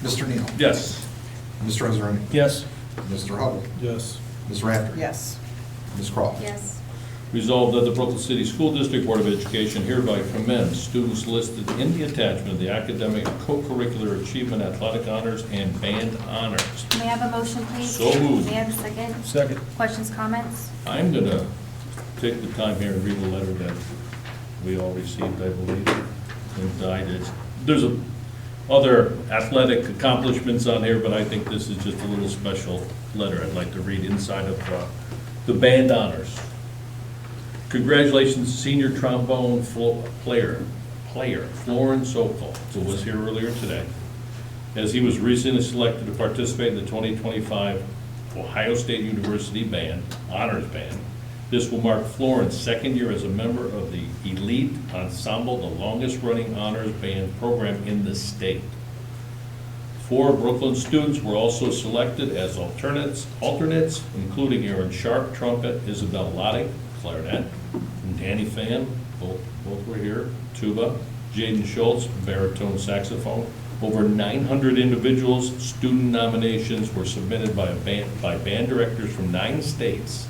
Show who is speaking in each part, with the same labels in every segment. Speaker 1: Mr. Neal?
Speaker 2: Yes.
Speaker 1: Mr. Israani?
Speaker 3: Yes.
Speaker 1: Mr. Hubble?
Speaker 3: Yes.
Speaker 1: Ms. Rafter?
Speaker 4: yes,
Speaker 1: Ms. Crawl?
Speaker 5: yes,
Speaker 2: Resolved that the Brooklyn City School District Board of Education hereby commends students listed in the attachment of the academic co-curricular achievement athletic honors and band honors.
Speaker 5: may I have a motion, please?
Speaker 2: So moved.
Speaker 5: May I have a second?
Speaker 3: Second.
Speaker 5: Questions, comments?
Speaker 2: I'm gonna take the time here and read the letter that we all received, I believe, and I did. There's a- other athletic accomplishments on here, but I think this is just a little special letter I'd like to read inside of uh, the band honors. Congratulations, senior trombone flo- player, player Florence Sokol, who was here earlier today, as he was recently selected to participate in the 2025 Ohio State University Band, Honors Band. This will mark Florence's second year as a member of the elite ensemble, the longest-running honors band program in the state. Four Brooklyn students were also selected as alternates, alternates, including Aaron Sharp, trumpet, Isabel Lottie, clarinet, and Danny Fan, both, both were here, tuba, Jaden Schultz, baritone saxophone. Over 900 individuals, student nominations were submitted by a band, by band directors from nine states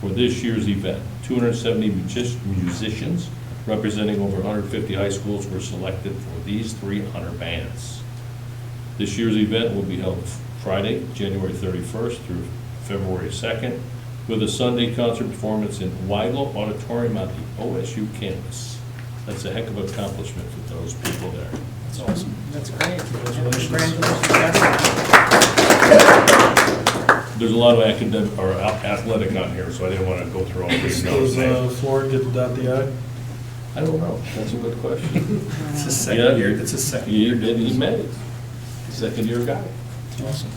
Speaker 2: for this year's event. 270 music- musicians representing over 150 high schools were selected for these three honor bands. This year's event will be held Friday, January 31st through February 2nd, with a Sunday concert performance in Weigel Auditorium on the OSU campus. That's a heck of an accomplishment for those people there.
Speaker 3: That's awesome. That's great. Congratulations.
Speaker 4: congratulations, yes,
Speaker 2: There's a lot of academic, or athletic on here, so I didn't want to go through all these
Speaker 3: Does
Speaker 2: names.
Speaker 3: uh,
Speaker 2: I
Speaker 3: Florida get to dot the i?
Speaker 2: don't know, that's a good question.
Speaker 6: It's his
Speaker 2: Yeah.
Speaker 6: second year, it's his second
Speaker 2: He,
Speaker 6: year.
Speaker 2: he made it, second year guy.
Speaker 3: Awesome.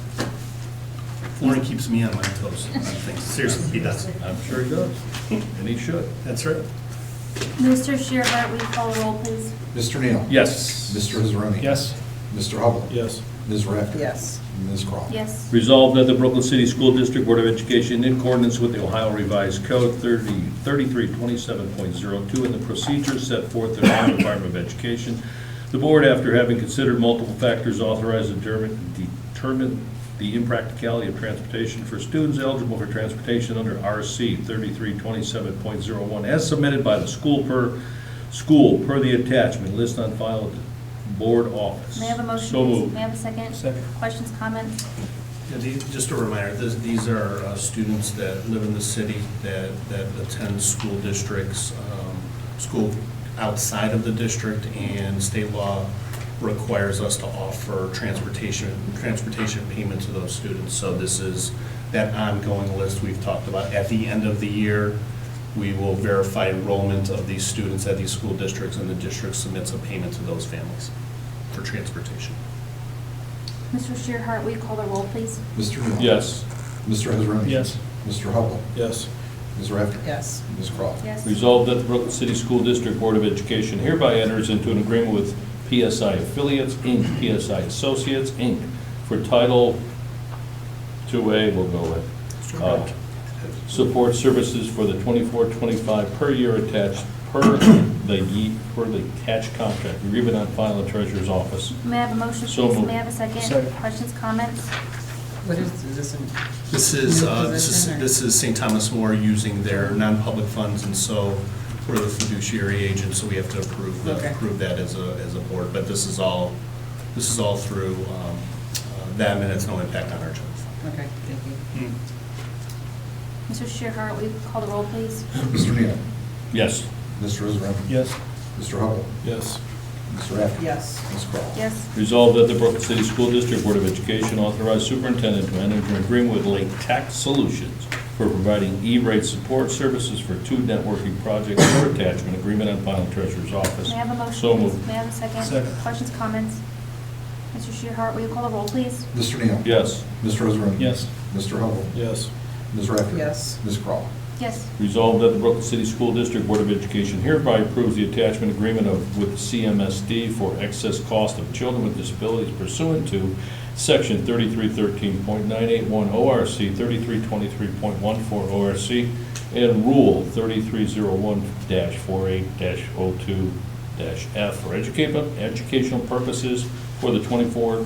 Speaker 6: Lauren keeps me on my toes on things, seriously, he does.
Speaker 2: I'm sure he does, and he should.
Speaker 6: That's right.
Speaker 5: Mr. Shearbart, will you call the roll, please?
Speaker 1: Mr. Neal?
Speaker 2: Yes.
Speaker 1: Mr. Israani?
Speaker 3: Yes.
Speaker 1: Mr. Hubble?
Speaker 3: Yes.
Speaker 1: Ms. Rafter?
Speaker 4: yes,
Speaker 1: Ms. Crawl?
Speaker 5: Yes,
Speaker 2: Resolved that the Brooklyn City School District Board of Education, in accordance with the Ohio Revised Code 30 3327.02 and the procedures set forth in the Ohio Department of Education, the board, after having considered multiple factors, authorized and determined- determined the impracticality of transportation for students eligible for transportation under RC 3327.01 as submitted by the school per, school per the attachment list on file at the board office.
Speaker 5: may I have a motion,
Speaker 2: So
Speaker 5: please?
Speaker 2: moved.
Speaker 5: May I have a second?
Speaker 3: Second.
Speaker 5: Questions, comments?
Speaker 6: Yeah, these- Just a reminder, this- these are uh, students that live in the city, that, that attend school districts, um, school outside of the district, and state law requires us to offer transportation, transportation payment to those students. So this is that ongoing list we've talked about. At the end of the year, we will verify enrollment of these students at these school districts, and the district submits a payment to those families for transportation.
Speaker 5: Mr. Shearhart, will you call the roll, please?
Speaker 1: Mr. Neal?
Speaker 2: Yes.
Speaker 1: Mr. Israani?
Speaker 3: Yes.
Speaker 1: Mr. Hubble?
Speaker 3: Yes.
Speaker 1: Ms. Rafter?
Speaker 4: yes,
Speaker 1: Ms. Crawl?
Speaker 5: Yes.
Speaker 2: Resolved that the Brooklyn City School District Board of Education hereby enters into an agreement with PSI Affiliates, Inc., PSI Associates, Inc., for Title 2A, we'll go with, uh, support services for the 24-25 per year attached, per the, ye- per the attached contract, agreement on file in Treasurer's Office.
Speaker 5: May I have a motion,
Speaker 2: So
Speaker 5: please?
Speaker 2: moved.
Speaker 5: May I have a second?
Speaker 3: Second.
Speaker 5: Questions, comments?
Speaker 4: what is, is this, in-
Speaker 6: This is,
Speaker 4: New
Speaker 6: uh, this
Speaker 4: position
Speaker 6: is,
Speaker 4: or-
Speaker 6: this is St. Thomas More using their non-public funds, and so we're the fiduciary agent, so we have to approve, the-
Speaker 4: Okay.
Speaker 6: approve that as a, as a board. But this is all, this is all through um, uh, them, and it's no impact on our general fund.
Speaker 4: okay, thank you,
Speaker 5: Mr. Shearhart, will you call the roll, please?
Speaker 1: Mr. Neal?
Speaker 2: Yes.
Speaker 1: Mr. Israani?
Speaker 3: Yes.
Speaker 1: Mr. Hubble?
Speaker 3: Yes.
Speaker 1: Ms. Rafter?
Speaker 4: yes,
Speaker 1: Ms. Crawl?
Speaker 5: Yes,
Speaker 2: Resolved that the Brooklyn City School District Board of Education authorize superintendent to enter into an agreement with Lake Tech Solutions for providing E-rate support services for two networking projects for attachment agreement on file in treasurer's office.
Speaker 5: may I have a motion?
Speaker 2: So
Speaker 5: please?
Speaker 2: moved.
Speaker 5: May I have a second?
Speaker 3: Second.
Speaker 5: Questions, comments? Mr. Shearhart, will you call the roll, please?
Speaker 1: Mr. Neal?
Speaker 2: Yes.
Speaker 1: Mr. Israani?
Speaker 3: Yes.
Speaker 1: Mr. Hubble?
Speaker 3: Yes.
Speaker 1: Ms. Rafter?
Speaker 4: Yes.
Speaker 1: Ms. Crawl?
Speaker 5: Yes,
Speaker 2: Resolved that the Brooklyn City School District Board of Education hereby approves the attachment agreement of, with CMSD for excess cost of children with disabilities pursuant to Section 3313.981 ORC, 3323.14 ORC, and Rule 3301-48-02-F for educate- educational purposes for the 24